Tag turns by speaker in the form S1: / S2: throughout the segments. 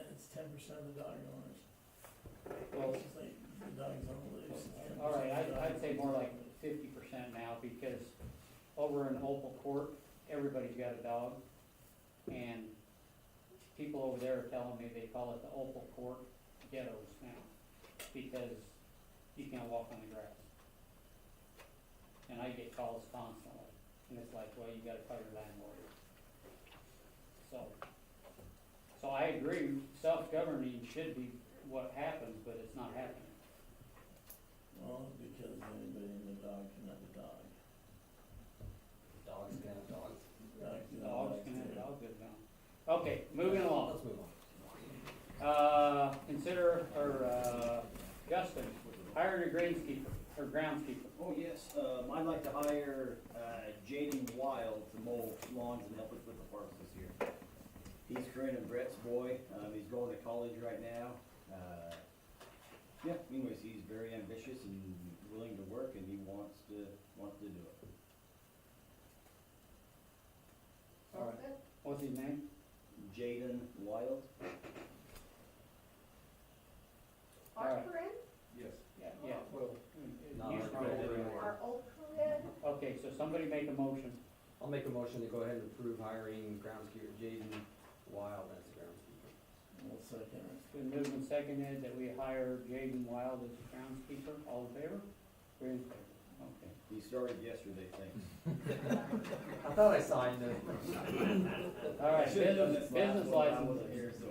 S1: percent of the dog owners.
S2: Well,
S1: It's like The dogs don't lose.
S2: all right, I'd, I'd say more like fifty percent now, because over in Opal Court, everybody's got a dog. And people over there are telling me they call it the Opal Court ghettos now, because you can't walk on the grass. And I get calls constantly, and it's like, well, you gotta call your landlord. So, so I agree, self-governing should be what happens, but it's not happening.
S1: Well, because anybody in the dog can have a dog.
S3: Dogs, yeah, dogs.
S1: Dogs can have
S2: Dogs
S1: dogs
S2: can have
S1: too.
S2: dog good now. Okay, moving along.
S3: Let's move on.
S2: Uh, consider, or, uh, Justin, hiring a greenskeeper, or groundskeeper.
S4: Oh, yes, um, I'd like to hire, uh, Jaden Wild to mow lawns and help us with the parks this year. He's Corinne and Brett's boy, um, he's going to college right now, uh, yeah, anyways, he's very ambitious and willing to work and he wants to, wants to do it.
S2: All right. What's his name?
S4: Jaden Wild?
S2: All
S5: Our
S2: right.
S5: Corinne,
S3: Yes.
S2: Yeah, yeah.
S3: Well, not
S2: You
S3: our
S2: start it.
S3: program.
S5: our old Corinne,
S2: Okay, so somebody make a motion.
S3: I'll make a motion to go ahead and approve hiring groundskeeper Jaden Wild as a groundskeeper.
S1: Well, second,
S2: It's been moved and seconded that we hire Jaden Wild as groundskeeper. All in favor? We're in favor. Okay.
S4: He started yesterday, thanks.
S3: I thought I signed it.
S2: All right,
S4: Should've done
S2: business,
S4: this last
S2: business
S4: one, I wasn't
S2: license.
S4: here, so,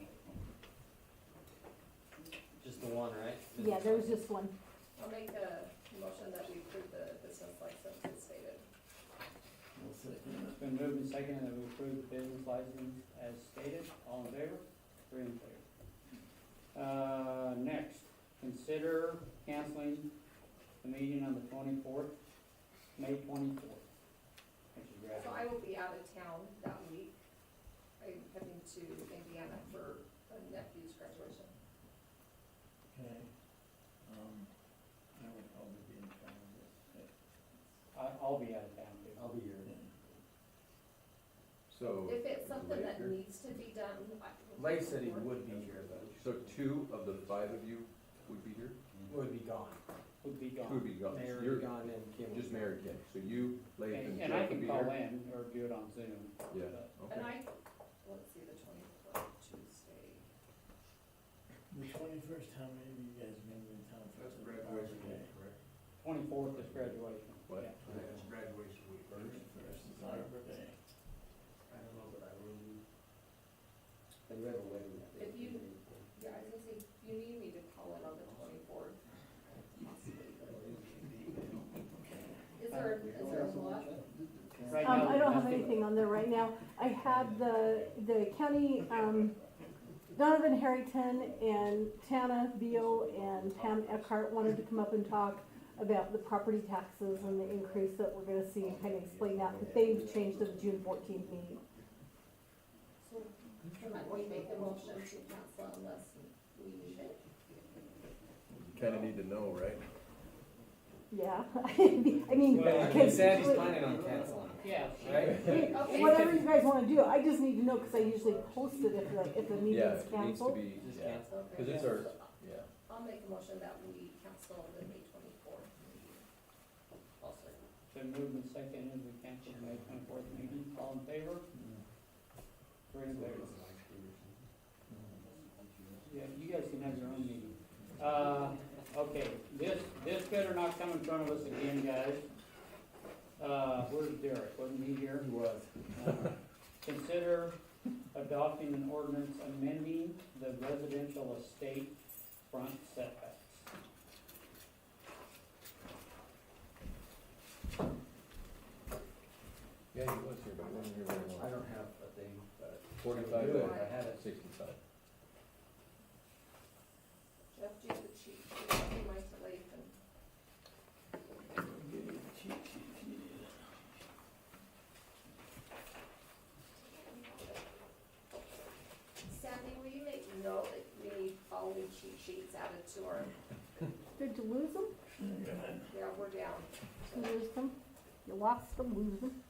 S4: yeah.
S3: Just the one, right?
S6: Yeah, there was just one.
S5: I'll make a motion that we approve the business license as stated.
S1: well, second,
S2: It's been moved and seconded that we approve the business license as stated. All in favor? Three in favor. Uh, next, consider canceling the meeting on the twenty-fourth, May twenty-fourth. Which is
S5: So I
S2: graduate.
S5: will be out of town that week. I'm heading to Indiana for a nephew's graduation.
S1: okay. Um, I would probably be in town this,
S2: I, I'll be out of town too.
S3: I'll be here.
S1: yeah.
S7: So,
S5: If it's something that
S7: Later.
S5: needs to be done, I.
S3: Lake said he would be here, but
S7: so two of the five of you would be here?
S3: would be gone.
S2: Would be
S7: Two would
S2: gone.
S7: be gone.
S3: Mayor would
S7: You're
S3: be gone and Kim would
S7: just
S3: be-
S7: Mary Kay. So you, Lath,
S2: And
S7: and
S2: and I
S7: Jeff would
S2: can
S7: be
S2: call
S7: here?
S2: in or do it on Zoom.
S7: Yeah,
S2: but-
S7: okay.
S5: And I, let's see, the twenty-fourth, Tuesday.
S1: The twenty-first, how many of you guys been in town for? the Okay.
S8: correct?
S2: Twenty-fourth is graduation.
S7: What?
S2: Yeah.
S8: That's graduation week.
S1: Twenty-first is Arbor Day.
S8: I don't know, but I will be.
S3: And we have a wedding that day.
S5: If you- Yeah, I was gonna say, you need me to call in on the twenty-fourth. Is there, is there a lot?
S2: Right
S6: Um,
S2: now,
S6: I don't have
S2: nothing.
S6: anything on there right now. I have the, the county, um, Donovan Harrington and Tana Beal and Pam Eckhart wanted to come up and talk about the property taxes and the increase that we're gonna see and kind of explain that, but they've changed to the June fourteenth meeting.
S5: So, can we make the motion to cancel unless we need it?
S7: Kinda need to know, right?
S6: Yeah, I mean,
S2: Well,
S3: He
S6: because,
S3: said he's planning on canceling,
S2: Yeah.
S3: right?
S6: whatever you guys wanna do, I just need to know, cause I usually post it if the, if the
S7: Yeah,
S6: meeting's
S7: it needs to
S6: canceled.
S7: be,
S3: Just
S7: yeah,
S3: cancel.
S5: Okay.
S7: cause it's our, yeah.
S5: I'll make a motion that we cancel the May twenty-fourth meeting. I'll second.
S2: Been moved and seconded, we cancel the May twenty-fourth meeting, all in favor? Three in favor. Yeah, you guys can have your own meeting. Uh, okay, this, this better not come in front of us again, guys. Uh, where's Derek, wasn't he here?
S3: He was.
S2: Uh, Consider adopting an ordinance amending the residential estate front setbacks.
S7: Yeah, he was here, but he wasn't here very
S3: I
S7: long.
S3: don't have a thing, but.
S7: Forty-five
S3: If
S7: to
S3: I had it.
S5: Jeff,
S7: sixty-five.
S5: do you have the cheat sheet? I'll be my slave and Sandy, will you make note that we need all new cheat sheets added to our,
S6: Did you lose them?
S5: yeah, we're down.
S6: You lose them? You lost them, lose them?